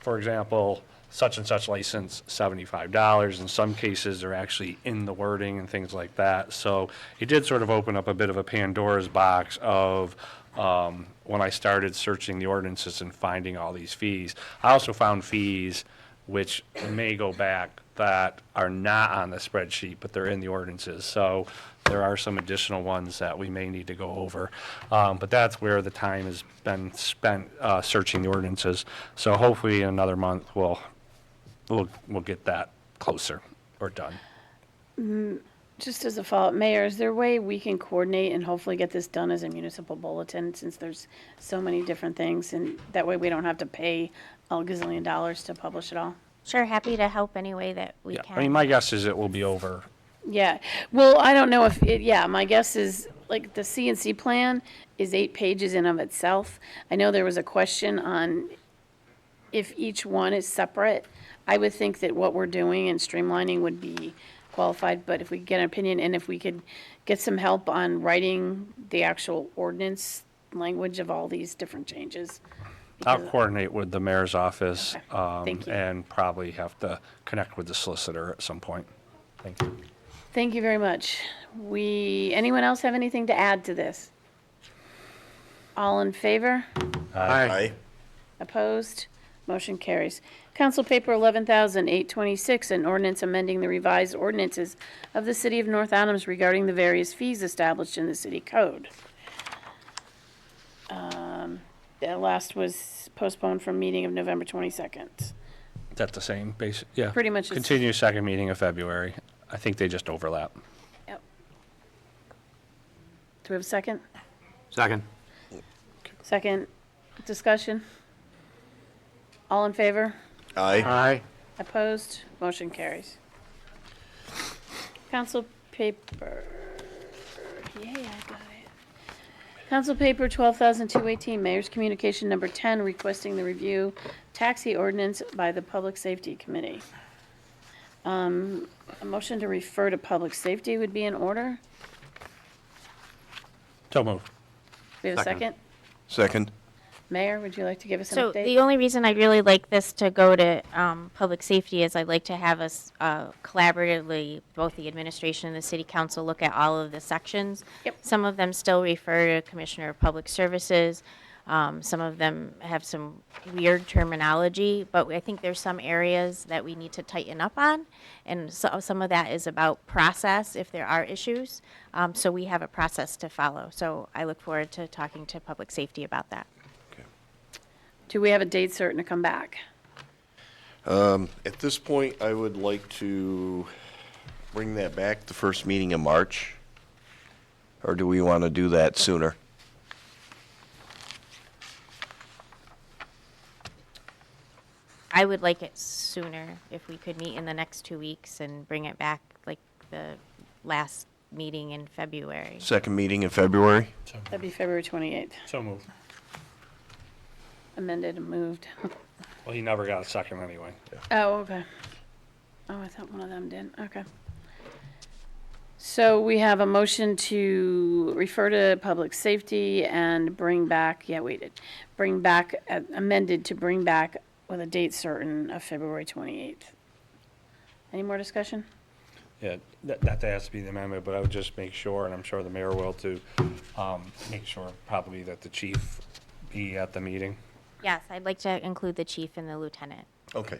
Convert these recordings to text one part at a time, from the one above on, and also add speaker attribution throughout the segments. Speaker 1: for example, such and such license, seventy-five dollars. In some cases, they're actually in the wording and things like that. So it did sort of open up a bit of a Pandora's box of, um, when I started searching the ordinances and finding all these fees. I also found fees which may go back that are not on the spreadsheet, but they're in the ordinances. So there are some additional ones that we may need to go over. Um, But that's where the time has been spent uh, searching the ordinances. So hopefully in another month, we'll, we'll, we'll get that closer or done.
Speaker 2: Just as a follow-up, Mayor, is there a way we can coordinate and hopefully get this done as a municipal bulletin, since there's so many different things, and that way we don't have to pay a gazillion dollars to publish it all?
Speaker 3: Sure, happy to help any way that we
Speaker 1: Yeah,
Speaker 3: can.
Speaker 1: I mean, my guess is it will be over.
Speaker 2: Yeah, well, I don't know if, it- yeah, my guess is, like, the CNC plan is eight pages in of itself. I know there was a question on if each one is separate. I would think that what we're doing and streamlining would be qualified, but if we could get an opinion, and if we could get some help on writing the actual ordinance language of all these different changes.
Speaker 1: I'll
Speaker 2: because-
Speaker 1: coordinate with the mayor's office
Speaker 2: Okay,
Speaker 1: um,
Speaker 2: thank you.
Speaker 1: and probably have to connect with the solicitor at some point. Thank you.
Speaker 2: Thank you very much. We, anyone else have anything to add to this? All in favor?
Speaker 4: Aye.
Speaker 2: Opposed? Motion carries. Council Paper 11,826, an ordinance amending the revised ordinances of the City of North Adams regarding the various fees established in the city code. Um, That last was postponed from meeting of November 22nd.
Speaker 1: Is that the same base? Yeah.
Speaker 2: Pretty much it's-
Speaker 1: Continue second meeting of February. I think they just overlap.
Speaker 2: Yep. Do we have a second?
Speaker 5: Second.
Speaker 2: Second discussion? All in favor?
Speaker 4: Aye.
Speaker 5: Aye.
Speaker 2: Opposed? Motion carries. Council paper, yay, I got it. Council paper 12,218, Mayor's Communication Number 10, requesting the review taxi ordinance by the Public Safety Committee. Um, A motion to refer to public safety would be in order.
Speaker 1: So moved.
Speaker 2: We have a
Speaker 5: Second.
Speaker 2: second?
Speaker 4: Second.
Speaker 2: Mayor, would you like to give us an
Speaker 3: So
Speaker 2: update?
Speaker 3: the only reason I really like this to go to um, public safety is I'd like to have us uh, collaboratively, both the administration and the city council, look at all of the sections.
Speaker 2: Yep.
Speaker 3: Some of them still refer to Commissioner of Public Services. Um, Some of them have some weird terminology, but I think there's some areas that we need to tighten up on. And so, some of that is about process, if there are issues. Um, So we have a process to follow. So I look forward to talking to public safety about that.
Speaker 2: Do we have a date certain to come back?
Speaker 4: At this point, I would like to bring that back, the first meeting in March. Or do we want to do that sooner?
Speaker 3: I would like it sooner if we could meet in the next two weeks and bring it back like the last meeting in February.
Speaker 4: Second meeting in February?
Speaker 2: That'd be February 28th,
Speaker 1: So moved.
Speaker 2: amended and moved.
Speaker 1: Well, he never got a second anyway.
Speaker 2: Oh, okay. Oh, I thought one of them did, okay. So we have a motion to refer to public safety and bring back, yeah, we did, bring back, uh, amended to bring back with a date certain of February 28th. Any more discussion?
Speaker 1: Yeah, that, that has to be the amendment, but I would just make sure, and I'm sure the mayor will too, um, make sure probably that the chief be at the meeting.
Speaker 3: Yes, I'd like to include the chief and the lieutenant.
Speaker 4: Okay.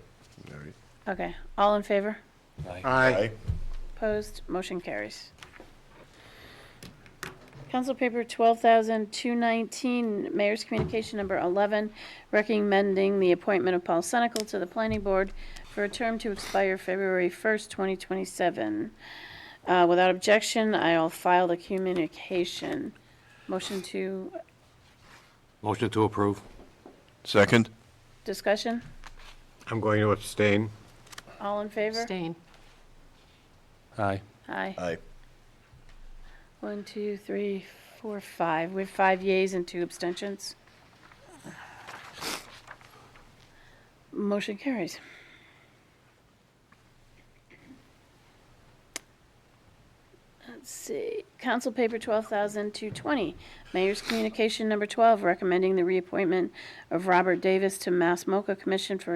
Speaker 4: All right.
Speaker 2: Okay, all in favor?
Speaker 5: Aye.
Speaker 2: Opposed, motion carries. Council Paper 12,219, Mayor's Communication Number 11, recommending the appointment of Paul Senical to the Planning Board for a term to expire February 1st, 2027. Uh, Without objection, I'll file the communication. Motion to
Speaker 5: Motion to approve.
Speaker 4: Second?
Speaker 2: discussion?
Speaker 5: I'm going to abstain.
Speaker 2: All in favor?
Speaker 6: Abstain.
Speaker 1: Aye.
Speaker 2: Aye.
Speaker 4: Aye.
Speaker 2: One, two, three, four, five. We have five yeas and two abstentions. Motion carries. Let's see, Council Paper 12,220, Mayor's Communication Number 12, recommending the reappointment of Robert Davis to Mass MoCA Commission for a